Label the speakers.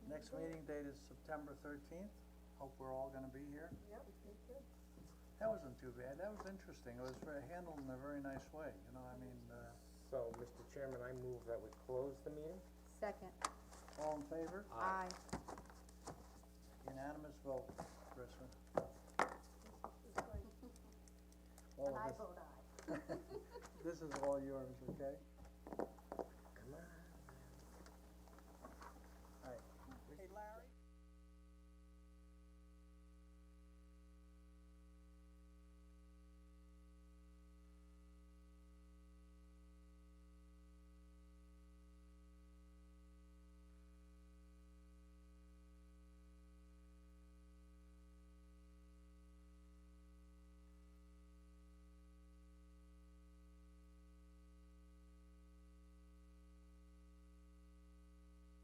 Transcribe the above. Speaker 1: next meeting date is September thirteenth. Hope we're all gonna be here.
Speaker 2: Yep, me too.
Speaker 1: That wasn't too bad. That was interesting. It was very- handled in a very nice way, you know, I mean, uh,
Speaker 3: So, Mr. Chairman, I move that we close the meeting.
Speaker 4: Second,
Speaker 1: all in favor?
Speaker 4: aye.
Speaker 1: Unanimous vote, Kristen.
Speaker 2: It's like,
Speaker 1: All of
Speaker 4: I
Speaker 1: this-
Speaker 4: vote aye.
Speaker 1: This is all yours, okay?
Speaker 3: Come on.